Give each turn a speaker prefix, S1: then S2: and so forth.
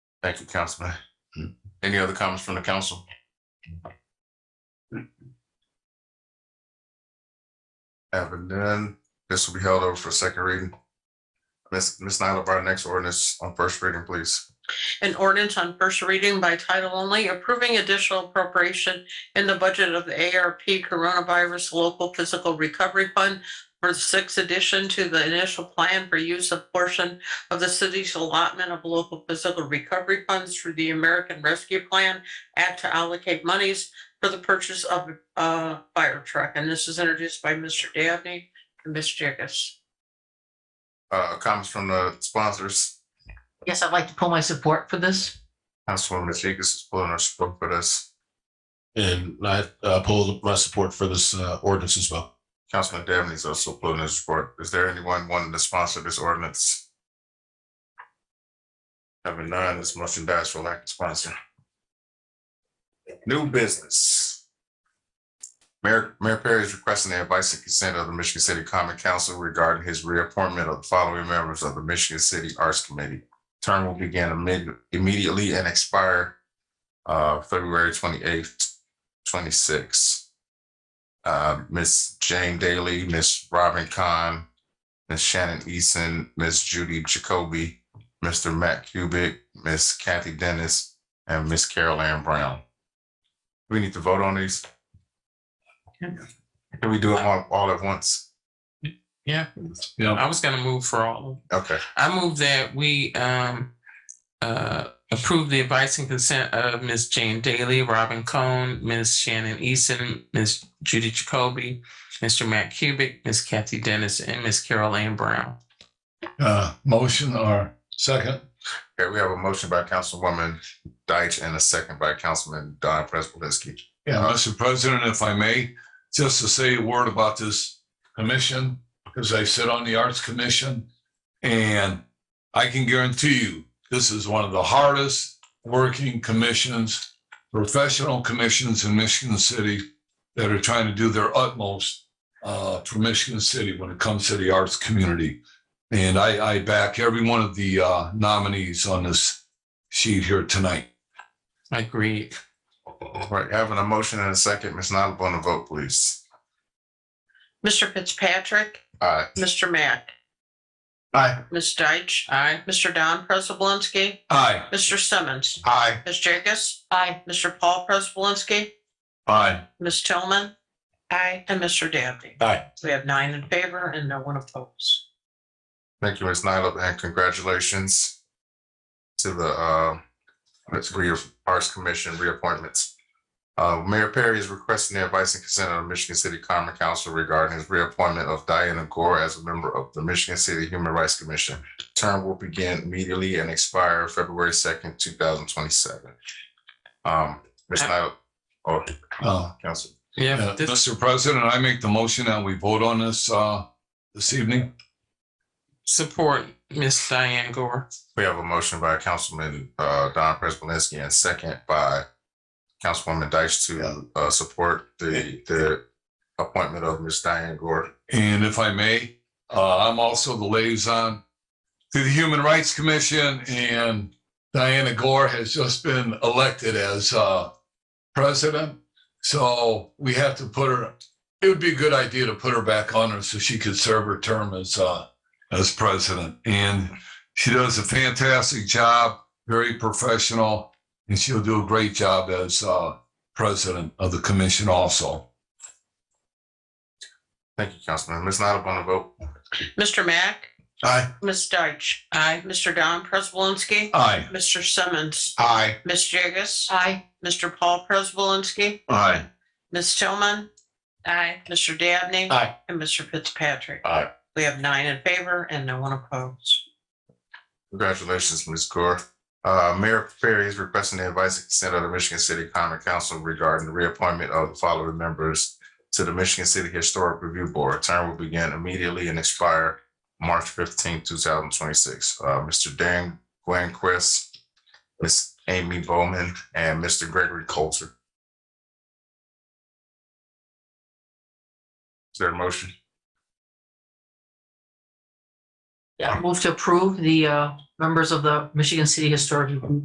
S1: Thank you, Councilman. Any other comments from the council? Having done, this will be held over for second reading. Ms. Ms. Nyla, our next ordinance on first reading, please.
S2: An ordinance on first reading by title only approving additional appropriation in the budget of the ARP Coronavirus Local Physical Recovery Fund for the sixth addition to the initial plan for use of portion of the city's allotment of local physical recovery funds through the American Rescue Plan Act to allocate monies for the purchase of a fire truck. And this is introduced by Mr. Dabney and Ms. Jacobs.
S1: Uh, comments from the sponsors.
S3: Yes, I'd like to pull my support for this.
S1: Councilwoman Jacobs is pulling her support for this.
S4: And I uh, pull my support for this uh, ordinance as well.
S1: Councilman Dabney is also pulling his support. Is there anyone wanting to sponsor this ordinance? Having none, this motion dies for lack of sponsor. New business. Mayor, Mayor Perry is requesting the advice and consent of the Michigan City Common Council regarding his reappointment of the following members of the Michigan City Arts Committee. Term will begin amid- immediately and expire uh, February twenty-eighth, twenty-six uh, Miss Jane Daly, Miss Robin Kahn, Miss Shannon Eason, Miss Judy Jacoby, Mr. Matt Kubik, Miss Kathy Dennis, and Miss Carol Ann Brown. We need to vote on these. Can we do them all, all at once?
S5: Yeah.
S4: Yeah.
S5: I was gonna move for all of them.
S1: Okay,
S5: I move that we um uh approve the advice and consent of Ms. Jane Daly, Robin Cohn, Ms. Shannon Eason, Ms. Judy Jacoby, Mr. Matt Kubik, Ms. Kathy Dennis, and Ms. Carol Ann Brown.
S4: Uh, motion or second?
S1: okay, we have a motion by Councilwoman Deitch and a second by Councilman Don Prespolinski.
S4: Yeah, Mr. President, if I may, just to say a word about this commission, because I sit on the Arts Commission. And I can guarantee you, this is one of the hardest working commissions, professional commissions in Michigan City that are trying to do their utmost uh, for Michigan City when it comes to the arts community. And I, I back every one of the uh, nominees on this sheet here tonight.
S5: Agreed.
S1: All right, having a motion and a second, Ms. Nyla, on the vote, please.
S2: Mr. Fitzpatrick,
S1: Aye.
S2: Mr. Mack,
S4: Aye.
S2: Ms. Deitch,
S5: Aye.
S2: Mr. Don Prespolinski,
S4: Aye.
S2: Mr. Simmons.
S1: Aye.
S2: Ms. Jacobs?
S3: Aye.
S2: Mr. Paul Prespolinski?
S4: Aye.
S2: Ms. Tillman? Aye. And Mr. Dabney?
S4: Aye.
S2: We have nine in favor and no one opposed.
S1: Thank you, Ms. Nyla, and congratulations to the uh, that's re- Arts Commission reappointments. Uh, Mayor Perry is requesting the advice and consent of the Michigan City Common Council regarding his reappointment of Diana Gore as a member of the Michigan City Human Rights Commission. Term will begin immediately and expire February second, two thousand twenty-seven. Um, Ms. Nyla, or
S4: Uh,
S1: Council,
S5: Yeah.
S4: uh,
S5: this-
S4: Mr. President, I make the motion that we vote on this, uh, this evening.
S5: Support Ms. Diane Gore.
S1: we have a motion by Councilman uh, Don Prespolinski and second by Councilwoman Deitch
S4: Yeah.
S1: to uh, support the, the appointment of Ms. Diane Gore.
S4: And if I may, uh, I'm also the liaison to the Human Rights Commission and Diana Gore has just been elected as, uh, president. So we have to put her, it would be a good idea to put her back on her so she could serve her term as, uh, as president. And she does a fantastic job, very professional, and she'll do a great job as, uh, president of the commission also.
S1: Thank you, Councilman. Ms. Nyla, on the vote.
S2: Mr. Mack?
S4: Aye.
S2: Ms. Deitch?
S5: Aye.
S2: Mr. Don Prespolinski?
S4: Aye.
S2: Mr. Simmons?
S4: Aye.
S2: Ms. Jacobs?
S3: Aye.
S2: Mr. Paul Prespolinski?
S4: Aye.
S2: Ms. Tillman? Aye. Mr. Dabney?
S4: Aye.
S2: And Mr. Fitzpatrick?
S1: Aye.
S2: We have nine in favor and no one opposed.
S1: Congratulations, Ms. Gore. Uh, Mayor Perry is requesting the advice and consent of the Michigan City Common Council regarding the reappointment of the following members to the Michigan City Historic Review Board. Term will begin immediately and expire March 15, thousand twenty-six. Uh, Mr. Dan Gwenquist, Ms. Amy Bowman, and Mr. Gregory Coulter. Is there a motion?
S3: Yeah, move to approve the uh, members of the Michigan City Historic Review